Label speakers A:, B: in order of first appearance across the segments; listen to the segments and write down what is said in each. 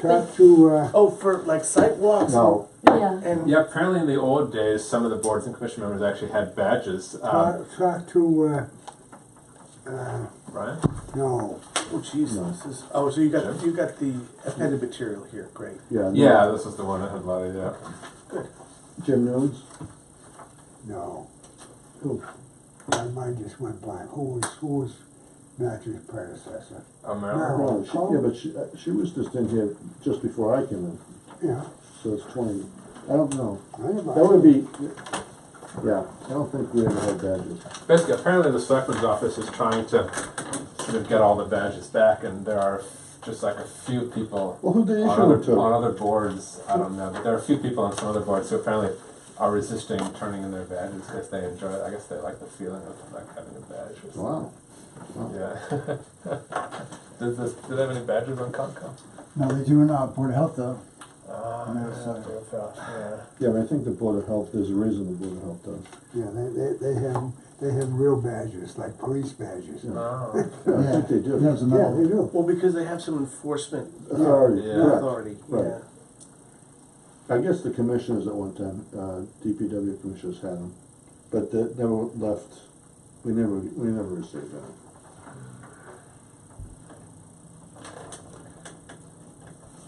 A: talk to, uh,
B: Oh, for like sidewalks?
C: No,
D: Yeah,
B: And,
E: Yeah, apparently in the old days, some of the boards and commission members actually had badges. Uh,
A: talk, talk to, uh, uh,
E: Brian?
A: no,
B: oh jeez, this is, oh, so you got, you got the appended material here, great.
C: yeah. no.
E: Yeah, this was the one that had a lot of, yeah.
C: Jim Nunes,
A: no. Who? My mind just went blank. Who was, who was Matthew's predecessor?
E: Oh,
A: No.
E: Marilyn?
C: no, she, yeah, but she, uh, she was just in here just before I came in,
A: Yeah,
C: so it's twenty, I don't know.
A: I don't know.
C: That would be, yeah, I don't think we ever had badges.
E: Basically, apparently the selectman's office is trying to sort of get all the badges back, and there are just like a few people
C: Well, who they
E: on
C: issue it
E: other, on
C: to?
E: other boards, I don't know, but there are a few people on some other boards who apparently are resisting turning in their badges because they enjoy, I guess they like the feeling of like having a badge or something.
C: Wow,
E: Yeah. Does this, do they have any badges on Concom?
F: No, they do in uh, Board of Health though.
E: Ah,
F: No, sorry.
E: yeah.
C: yeah, but I think the Board of Health, there's a reason the Board of Health does.
A: Yeah, they, they, they have, they have real badges, like police badges. Yeah,
E: Oh,
C: Yeah, I think they do.
F: There's another
A: they
F: one.
A: do.
B: Well, because they have some enforcement
C: Authority,
E: Yeah.
C: correct.
B: authority,
C: Right.
B: yeah.
C: I guess the commissioners at one time, uh, DPW commissioners had them, but that never left, we never, we never received them.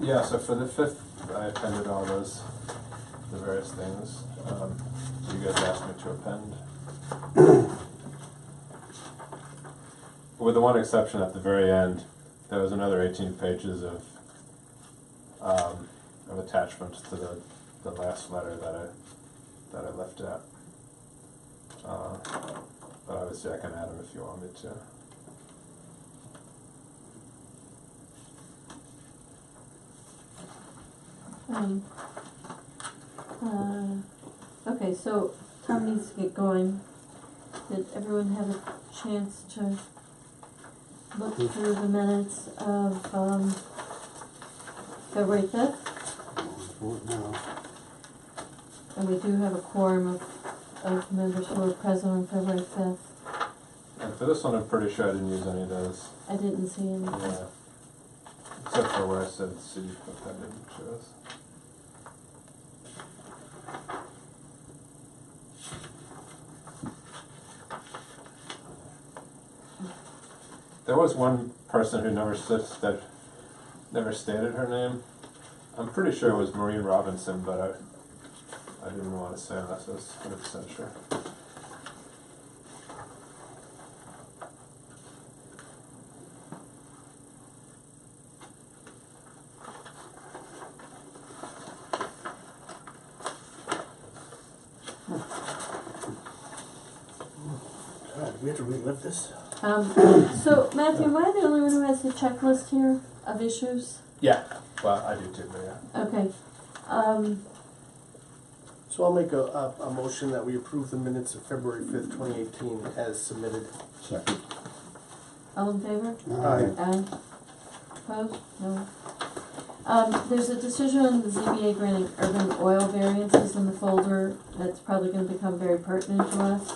E: yeah, so for the fifth, I appended all those, the various things, um, you guys asked me to append. With the one exception at the very end, there was another eighteen pages of, um, of attachments to the, the last letter that I, that I left out. Uh, But obviously I can add them if you want me to.
D: um, uh, okay, so Tom needs to get going. Did everyone have a chance to look through the minutes of, um, February fifth?
A: No,
D: And we do have a quorum of, of members who were present on February fifth.
E: And for this one, I'm pretty sure I didn't use any of those.
D: I didn't see any.
E: Yeah. Except for where I said C, but that didn't show us. There was one person who never sits that never stated her name. I'm pretty sure it was Maureen Robinson, but I I didn't want to say unless I was 100 percent sure.
B: God, Oh, we have to relive this?
D: Um, so Matthew, am I the only one who has the checklist here of issues?
E: Yeah. Well, I do too, but yeah.
D: Okay, um,
B: So I'll make a, a, a motion that we approve the minutes of February fifth, twenty eighteen as submitted.
C: Second.
D: all in favor?
A: no,
D: Aye. Opposed? Uh, No. Um, there's a decision on the ZBA granting urban oil variances in the folder that's probably gonna become very pertinent to us.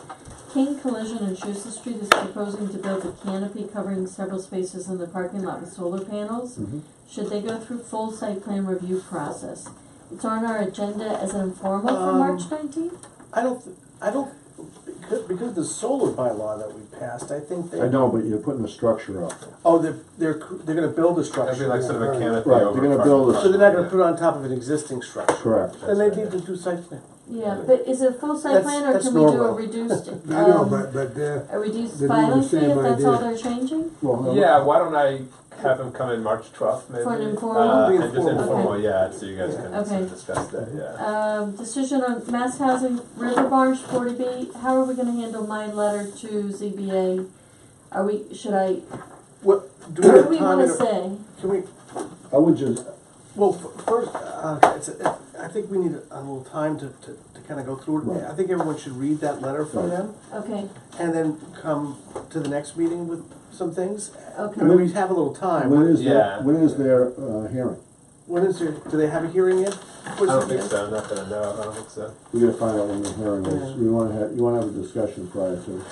D: King Collision in Schuster Street is proposing to build a canopy covering several spaces in the parking lot with solar panels.
C: Mhm.
D: Should they go through full site plan review process? It's on our agenda as an informal for March
B: Um,
D: nineteenth?
B: I don't, th- I don't, because, because the solar bylaw that we passed, I think they.
C: I know, but you're putting a structure up.
B: Oh, they're, they're, cr- they're gonna build a
E: That'd be
B: structure.
E: like sort of a canopy
C: Right,
E: over.
C: they're gonna
E: part
C: build
E: of
C: a-
E: the
B: So they're not gonna
E: front,
B: put it on top of an existing structure.
C: Correct.
E: yeah.
B: Then they need to do site plan.
D: Yeah, but is it full site
B: That's-
D: plan or
B: that's
D: can we do a
B: Norwell.
D: reduced, um,
A: I know, but, but, uh,
D: a reduced
A: They're doing the
D: filing fee
A: same
D: if that's all
A: idea.
D: they're changing?
C: Well, no,
E: Yeah, why don't I have him come in March twelfth, maybe?
D: For an informal?
E: Uh,
B: Be
E: and just
B: informal.
E: informal, yeah, and so you guys can sort
D: Okay.
E: of discuss that, yeah.
D: Um, decision on mass housing, River Barge, forty B, how are we gonna handle my letter to ZBA? Are we, should I,
B: What, do we
D: what do
B: have
D: we wanna
B: time,
D: say?
B: can we,
C: I would just,
B: Well, f- first, uh, it's a, I think we need a, a little time to, to, to kind of go through it.
C: Right.
B: I think everyone should read that letter from
C: Right.
B: them
D: Okay,
B: and then come to the next meeting with some things. I
D: okay,
B: mean, we have a little
C: when
B: time.
C: is their,
E: Yeah.
C: when is their, uh, hearing?
B: When is there, do they have a hearing yet?
E: I don't think so, I'm not gonna know, I don't think so.
C: We gotta find out when the hearing is.
B: Yeah.
C: You wanna have, you wanna have a discussion prior to.